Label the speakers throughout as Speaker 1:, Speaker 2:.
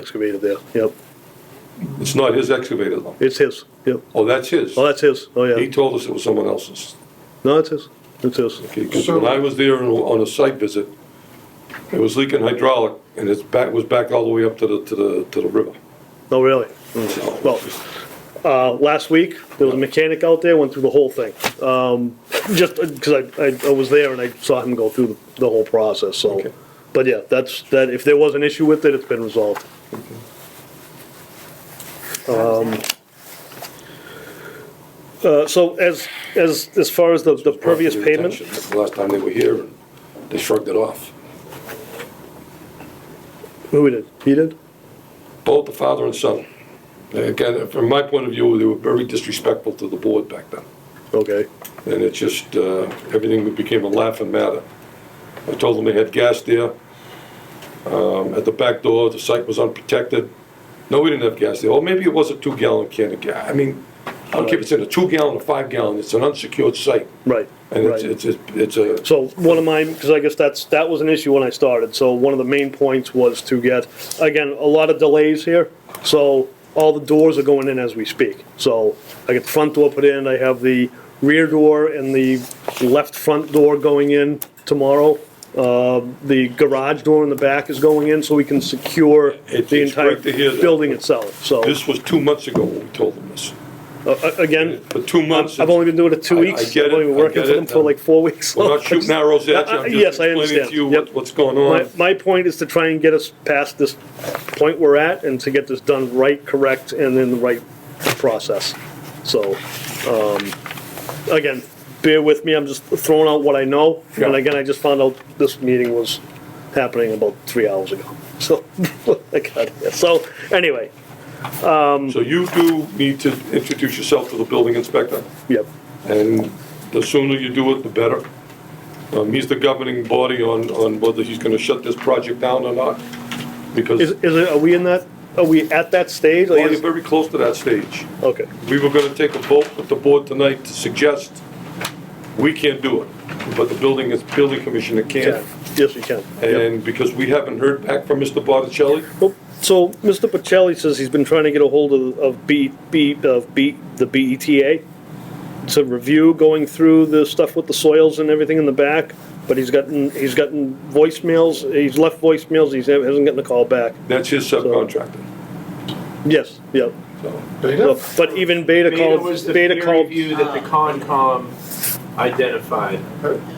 Speaker 1: excavator there, yep.
Speaker 2: It's not his excavator though.
Speaker 1: It's his, yep.
Speaker 2: Oh, that's his.
Speaker 1: Oh, that's his, oh,
Speaker 2: He
Speaker 1: yeah.
Speaker 2: told us it was someone else's.
Speaker 1: No, it's his, it's his.
Speaker 2: Because when I was there on a site visit, it was leaking hydraulic and its back was back all the way up to the, to the, to the river.
Speaker 1: No, Oh, really.
Speaker 2: So-
Speaker 1: Hmm. Well, uh, last week, there was a mechanic out there, went through the whole thing. Um, just because I, I, I was there and I saw him go through the, the whole process, so.
Speaker 2: Okay.
Speaker 1: But yeah, that's, that, if there was an issue with it, it's been resolved. Um, uh, so as, as, as far as the, the pervious
Speaker 2: Brought to their
Speaker 1: pavement,
Speaker 2: attention Last time they were here, and they shrugged it off.
Speaker 1: who did? He did?
Speaker 2: Both the father and son. Again, from my point of view, they were very disrespectful to the board back then.
Speaker 1: Okay,
Speaker 2: And it just, uh, everything became a laughing matter. I told them they had gas there. Um, At the back door, the site was unprotected. No, we didn't have gas there. Or maybe it was a two-gallon can of gas. I mean, I don't care if it's in a two-gallon or five-gallon, it's an unsecured site.
Speaker 1: right,
Speaker 2: And it's,
Speaker 1: right.
Speaker 2: it's, it's it's a,
Speaker 1: So one of my, because I guess that's, that was an issue when I started, so one of the main points was to get, again, a lot of delays here, so all the doors are going in as we speak. So I get the front door put in, I have the rear door and the left front door going in tomorrow. Uh, The garage door in the back is going in, so we can secure
Speaker 2: It's-
Speaker 1: the
Speaker 2: it's
Speaker 1: entire
Speaker 2: great to hear that.
Speaker 1: building itself, so,
Speaker 2: this was two months ago when we told them this.
Speaker 1: uh, uh, again,
Speaker 2: For two months.
Speaker 1: I've only been doing it two
Speaker 2: I- I
Speaker 1: weeks.
Speaker 2: get
Speaker 1: I've only
Speaker 2: it,
Speaker 1: been
Speaker 2: I
Speaker 1: working
Speaker 2: get
Speaker 1: for
Speaker 2: it.
Speaker 1: them for like four weeks.
Speaker 2: We're not shooting arrows at you,
Speaker 1: Uh,
Speaker 2: I'm
Speaker 1: yes,
Speaker 2: just
Speaker 1: I
Speaker 2: explaining
Speaker 1: understand.
Speaker 2: to you
Speaker 1: Yep.
Speaker 2: what- what's going
Speaker 1: My,
Speaker 2: on.
Speaker 1: my point is to try and get us past this point we're at and to get this done right, correct, and in the right process. So, um, again, bear with me, I'm just throwing out what I know. And
Speaker 2: Yeah.
Speaker 1: again, I just found out this meeting was happening about three hours ago. So, I got it. So, anyway,
Speaker 2: So you do need to introduce yourself to the building inspector.
Speaker 1: yep,
Speaker 2: And the sooner you do it, the better. Um, he's the governing body on, on whether he's gonna shut this project down or not,
Speaker 1: is,
Speaker 2: because
Speaker 1: is it, are we in that, are we at that stage? Like,
Speaker 2: we're
Speaker 1: is-
Speaker 2: very close to that stage.
Speaker 1: Okay,
Speaker 2: We were gonna take a vote with the board tonight to suggest, we can't do it, but the building is, building commissioner
Speaker 1: yeah,
Speaker 2: can.
Speaker 1: yes, you can. Yep.
Speaker 2: And because we haven't heard back from Mr. Botticelli,
Speaker 1: Well, So, Mr. Pacelli says he's been trying to get a hold of, of B, B, of B, the BETA to review going through the stuff with the soils and everything in the back, but he's gotten, he's gotten voicemails, he's left voicemails, he's, hasn't gotten a call back.
Speaker 2: that's his subcontractor,
Speaker 1: Yes, yep.
Speaker 2: so.
Speaker 1: So, But even Beta
Speaker 3: Beta
Speaker 1: called,
Speaker 3: was the
Speaker 1: Beta
Speaker 3: peer
Speaker 1: called, Ah.
Speaker 3: review that the Concom identified.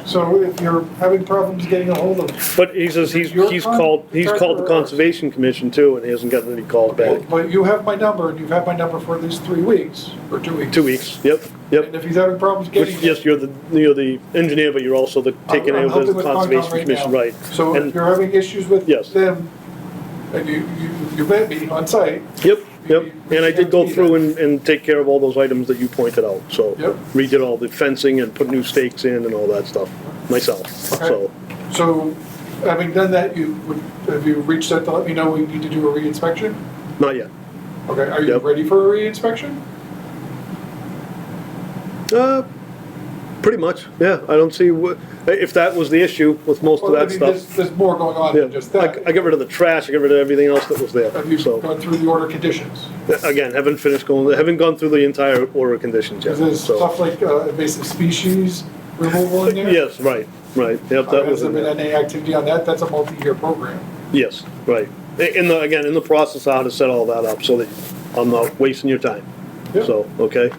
Speaker 4: So if you're having problems getting a hold of,
Speaker 1: but he says he's,
Speaker 4: Your
Speaker 1: he's called, he's called the
Speaker 4: contractor-
Speaker 3: uh,
Speaker 1: Conservation Commission too, and he hasn't gotten any calls back.
Speaker 4: but you have my number, and you've had my number for at least three weeks, or two weeks.
Speaker 1: Two weeks, yep,
Speaker 4: And
Speaker 1: yep.
Speaker 4: if he's having problems
Speaker 1: Which,
Speaker 4: getting.
Speaker 1: yes, you're the, you're the engineer, but you're also the,
Speaker 4: I'm-
Speaker 1: taking
Speaker 4: I'm
Speaker 1: over
Speaker 4: helping
Speaker 1: the
Speaker 4: with Concom
Speaker 1: Conservation
Speaker 4: right
Speaker 1: Commission,
Speaker 4: now.
Speaker 1: right?
Speaker 4: So
Speaker 1: And-
Speaker 4: if you're having issues with
Speaker 1: Yes.
Speaker 4: them, and you, you, you met me on site,
Speaker 1: Yep, yep, and I did go through and, and take care of all those items that you pointed out, so.
Speaker 4: Yep.
Speaker 1: Redid all the fencing and put new stakes in and all that stuff, myself, so.
Speaker 4: Okay. so having done that, you would, have you reached out to let me know we need to do a reinspection?
Speaker 1: Not yet.
Speaker 4: Okay, are you
Speaker 1: Yep.
Speaker 4: ready for a reinspection?
Speaker 1: Uh, pretty much, yeah, I don't see what, if that was the issue with most of
Speaker 4: Well, I
Speaker 1: that
Speaker 4: mean, there's,
Speaker 1: stuff.
Speaker 4: there's more going on
Speaker 1: Yeah,
Speaker 4: than just
Speaker 1: I,
Speaker 4: that.
Speaker 1: I get rid of the trash, I get rid of everything else that was there,
Speaker 4: Have you
Speaker 1: so.
Speaker 4: gone through the order conditions?
Speaker 1: Again, haven't finished going, haven't gone through the entire order of conditions yet,
Speaker 4: Is there
Speaker 1: so.
Speaker 4: stuff like uh, invasive species removal in there?
Speaker 1: Yes, right, right, yep,
Speaker 4: Uh,
Speaker 1: that was
Speaker 4: Has there
Speaker 1: in
Speaker 4: been
Speaker 1: there.
Speaker 4: any activity on that? That's a multi-year program.
Speaker 1: Yes, right. In the, again, in the process, I had to set all that up so that I'm not wasting your time.
Speaker 4: Yeah.
Speaker 1: So, okay?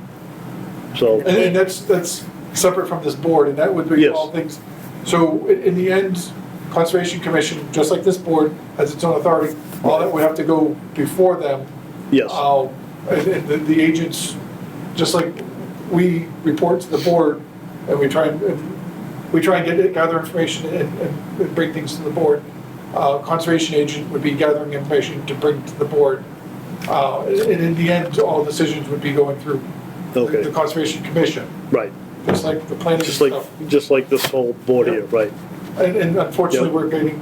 Speaker 1: So,
Speaker 4: And and that's, that's separate from this board, and that would be
Speaker 1: Yes.
Speaker 4: all things. So i- in the end, Conservation Commission, just like this board, has its own authority. All that would have to go before them.
Speaker 1: yes,
Speaker 4: Uh, And and the- the agents, just like we report to the board, and we try and, and we try and get, it- gather information and- and and bring things to the board. Uh, Conservation agent would be gathering information to bring to the board. Uh, And in the end, all decisions would be going through the-
Speaker 1: Okay.
Speaker 4: the Conservation Commission,
Speaker 1: right.
Speaker 4: just like the planning
Speaker 1: Just like,
Speaker 4: stuff.
Speaker 1: just like this whole board here, right?
Speaker 4: And and unfortunately,
Speaker 1: Yeah.
Speaker 4: we're getting,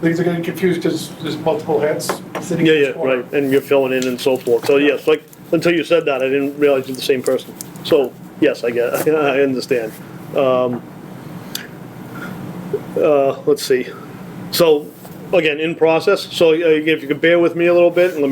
Speaker 4: things are getting confused because there's multiple hats sitting
Speaker 1: Yeah,
Speaker 4: in
Speaker 1: yeah,
Speaker 4: each corner.
Speaker 1: right. And you're filling in and so forth. So yes, like, until you said that, I didn't realize you're the same person. So, yes, I get, I understand. Um, uh, let's see. So, again, in process, so uh, if you could bear with me a little bit and let me